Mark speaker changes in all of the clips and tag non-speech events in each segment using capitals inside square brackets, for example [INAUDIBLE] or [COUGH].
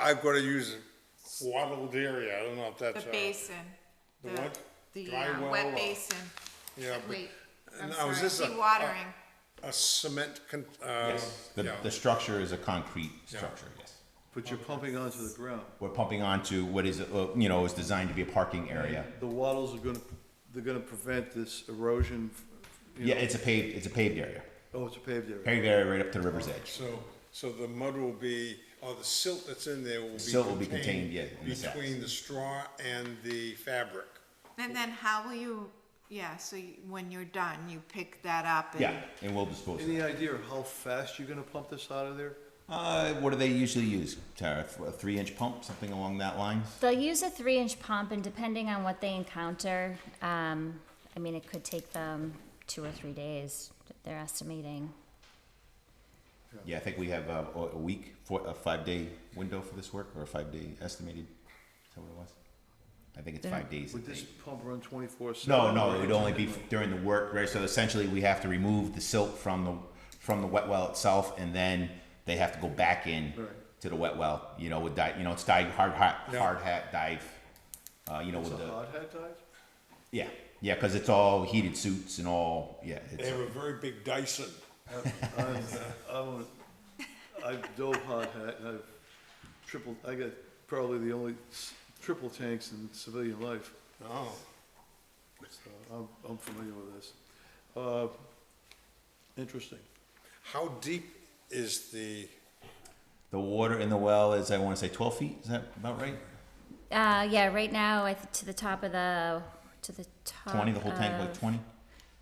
Speaker 1: I've gotta use a wattled area, I don't know if
Speaker 2: The
Speaker 1: that's. uh,
Speaker 2: basin.
Speaker 1: The what?
Speaker 2: The
Speaker 1: Dry
Speaker 2: uh,
Speaker 1: well
Speaker 2: wet
Speaker 1: or-
Speaker 2: basin,
Speaker 1: Yeah,
Speaker 2: wait, I'm
Speaker 1: No, is this a-
Speaker 2: sorry, watering.
Speaker 1: but a cement con, uh,
Speaker 3: The,
Speaker 1: yeah,
Speaker 3: the structure is a concrete structure, yes.
Speaker 4: But you're pumping onto the ground.
Speaker 3: We're pumping onto what is, uh, you know, is designed to be a parking area.
Speaker 4: The wattles are gonna, they're gonna prevent this erosion. you
Speaker 3: Yeah,
Speaker 4: know-
Speaker 3: it's a paved, it's a paved area,
Speaker 4: Oh, it's a paved area.
Speaker 3: paved area right up to the river's edge.
Speaker 1: so, so the mud will be, or the silt that's in there will be.
Speaker 3: Silt will be contained, yeah, in the sacks.
Speaker 1: Between the straw and the fabric.
Speaker 2: And then how will you, yeah, so you- when you're done, you pick that up and.
Speaker 3: Yeah, and we'll dispose of it.
Speaker 4: Any idea of how fast you're gonna pump this out of there?
Speaker 3: Uh, what do they usually use, Tara? A three-inch pump, something along that line?
Speaker 5: They'll use a three inch pump, and depending on what they encounter, um, I mean, it could take them two or three days, they're estimating.
Speaker 3: Yeah, I think we have uh, a a week, for a five-day window for this work, or a five-day estimated, is that what it was? I think it's five days.
Speaker 4: Would this pump run twenty-four
Speaker 3: No,
Speaker 4: seven?
Speaker 3: no, it would only be during the work, right? So essentially, we have to remove the silt from the, from the wet well itself, and then they have to go back in
Speaker 4: Right.
Speaker 3: to the wet well, you know, with di, you know, it's dive, hard hat,
Speaker 1: Yeah.
Speaker 3: hard hat dive, uh, you know,
Speaker 4: It's
Speaker 3: with
Speaker 4: a
Speaker 3: the,
Speaker 4: hot hat dive?
Speaker 3: yeah, yeah, cause it's all heated suits and all, yeah,
Speaker 1: They
Speaker 3: it's,
Speaker 1: have a very big Dyson.
Speaker 4: I'm, I'm, I've dove hot hat, and I've triple, I got probably the only s- triple tanks in civilian life.
Speaker 1: Oh,
Speaker 4: So I'm, I'm familiar with this. Uh, Interesting.
Speaker 1: how deep is the,
Speaker 3: the water in the well is, I wanna say twelve feet, is that about right?
Speaker 5: Uh, yeah, right now, I, th- to the top of the, to the top.
Speaker 3: Twenty, the whole tank,
Speaker 4: Uh,
Speaker 3: like
Speaker 5: of-
Speaker 3: twenty?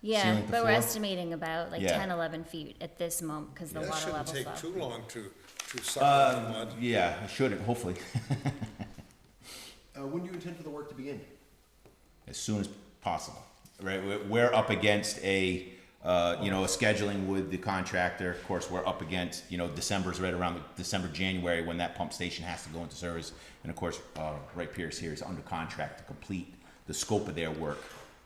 Speaker 5: Yeah,
Speaker 3: ceiling to
Speaker 5: but we're
Speaker 3: floor?
Speaker 5: estimating about like
Speaker 3: Yeah.
Speaker 5: ten, eleven feet at this moment, cause the
Speaker 1: that
Speaker 5: water
Speaker 1: shouldn't
Speaker 5: level's
Speaker 1: take
Speaker 5: up.
Speaker 1: too long to, to suck up
Speaker 3: Um,
Speaker 1: the mud.
Speaker 3: Yeah, I shouldn't, hopefully, [LAUGHS]
Speaker 6: Uh, when do you intend for the work to begin?
Speaker 3: as soon as possible, right? We're, we're up against a, uh, you know, a scheduling with the contractor. Of course, we're up against, you know, December's right around the December, January, when that pump station has to go into service. And of course, uh, Wright Pierce here is under contract to complete the scope of their work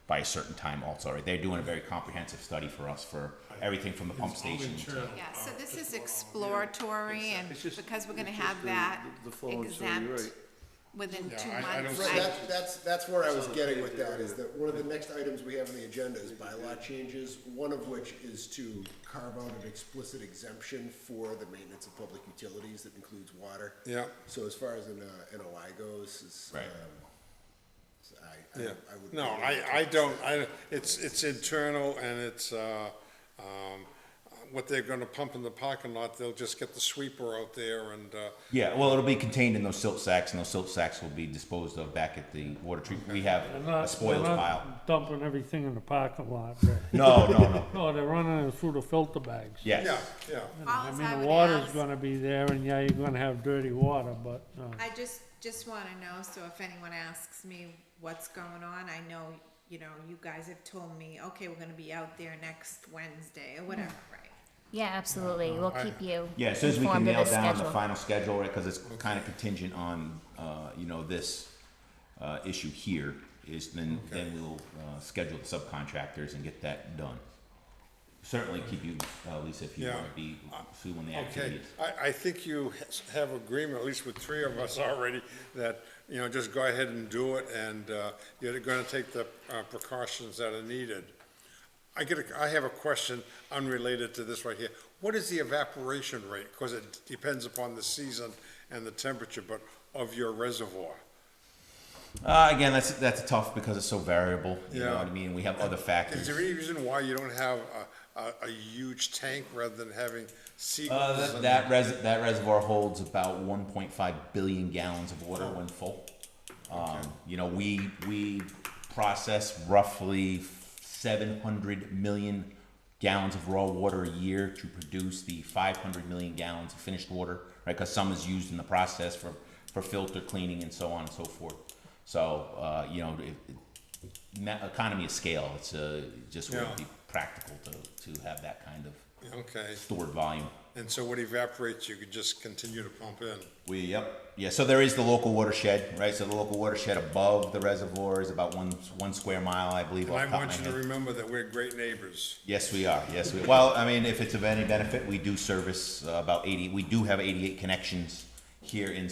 Speaker 3: by a certain time also, right? They're doing a very comprehensive study for us for everything from the pump station. to-
Speaker 2: Yeah,
Speaker 1: Uh,
Speaker 2: so this is exploratory and
Speaker 4: It's just-
Speaker 2: because we're gonna
Speaker 4: it's just
Speaker 2: have
Speaker 4: the-
Speaker 2: that
Speaker 4: the- the flow and so you're
Speaker 2: exempt
Speaker 4: right.
Speaker 2: within
Speaker 1: Yeah,
Speaker 2: two
Speaker 1: I- I
Speaker 2: months.
Speaker 1: don't
Speaker 6: Right,
Speaker 1: see-
Speaker 2: I-
Speaker 6: that's, that's, that's where I was getting with that, is that one of the next items we have on the agenda is bylaw changes, one of which is to carve out an explicit exemption for the maintenance of public utilities that includes water.
Speaker 1: Yeah.
Speaker 6: So as far as an, uh, NOI goes, is, um,
Speaker 3: Right.
Speaker 6: so I, I
Speaker 1: Yeah,
Speaker 6: I would.
Speaker 1: no, I, I don't, I, it's, it's internal and it's, uh, um, what they're gonna pump in the parking lot, they'll just get the sweeper out there and, uh,
Speaker 3: Yeah, well, it'll be contained in those silt sacks and those silt sacks will be disposed of back at the water treatment. We have
Speaker 7: They're
Speaker 3: a
Speaker 7: not-
Speaker 3: spoils
Speaker 7: they're not
Speaker 3: pile.
Speaker 7: Dumping everything in the parking lot, but,
Speaker 3: No, no,
Speaker 7: [LAUGHS]
Speaker 3: no.
Speaker 7: no, they're running it through the filter bags.
Speaker 3: Yes.
Speaker 1: yeah, yeah.
Speaker 7: I
Speaker 2: Alls I
Speaker 7: mean, the
Speaker 2: would
Speaker 7: water's
Speaker 2: ask-
Speaker 7: gonna be there, and yeah, you're gonna have dirty water, but, uh,
Speaker 2: I just, just wanna know, so if anyone asks me what's going on, I know, you know, you guys have told me, okay, we're gonna be out there next Wednesday or whatever, right?
Speaker 5: Yeah,
Speaker 1: Uh,
Speaker 5: absolutely, we'll keep you
Speaker 3: Yeah, as soon as we can
Speaker 5: informed of
Speaker 3: nail
Speaker 5: the
Speaker 3: down the
Speaker 5: schedule.
Speaker 3: final schedule, right, because it's kind of contingent on, uh, you know, this, uh, issue here, is then, then we'll, uh, schedule the subcontractors and get that done. Certainly keep you, uh, Lisa, if you
Speaker 1: Yeah.
Speaker 3: want to be, see when the
Speaker 1: Okay,
Speaker 3: activity is.
Speaker 1: I, I think you has- have agreement, at least with three of us already, that, you know, just go ahead and do it and, uh, you're gonna take the uh, precautions that are needed. I get, a- I have a question unrelated to this right here. What is the evaporation rate? Cause it depends upon the season and the temperature, but of your reservoir.
Speaker 3: Uh, again, that's, that's tough because it's so variable, you know
Speaker 1: Yeah.
Speaker 3: what I mean, we have other
Speaker 1: Is
Speaker 3: factors.
Speaker 1: there any reason why you don't have a, a, a huge tank rather than having
Speaker 3: Uh,
Speaker 1: seagulls?
Speaker 3: that,
Speaker 1: and-
Speaker 3: that res, that reservoir holds about one point five billion gallons of water when full. Um, you know, we, we process roughly seven hundred million gallons of raw water a year to produce the five hundred million gallons of finished water, right? Cause some is used in the process for, for filter cleaning and so on and so forth. So, uh, you know, it, it, ma- economy of scale, it's, uh, just
Speaker 1: Yeah.
Speaker 3: wouldn't be practical to, to have that kind of
Speaker 1: Okay,
Speaker 3: stored volume.
Speaker 1: and so what evaporates, you could just continue to pump in?
Speaker 3: We, yep, yeah, so there is the local watershed, right, so the local watershed above the reservoir is about one, one square mile, I believe,
Speaker 1: And
Speaker 3: off
Speaker 1: I
Speaker 3: the top of
Speaker 1: want you
Speaker 3: my
Speaker 1: to
Speaker 3: head.
Speaker 1: remember that we're great neighbors.
Speaker 3: Yes, we are, yes, we, well, I mean, if it's of any benefit, we do service uh, about eighty, we do have eighty-eight connections here in,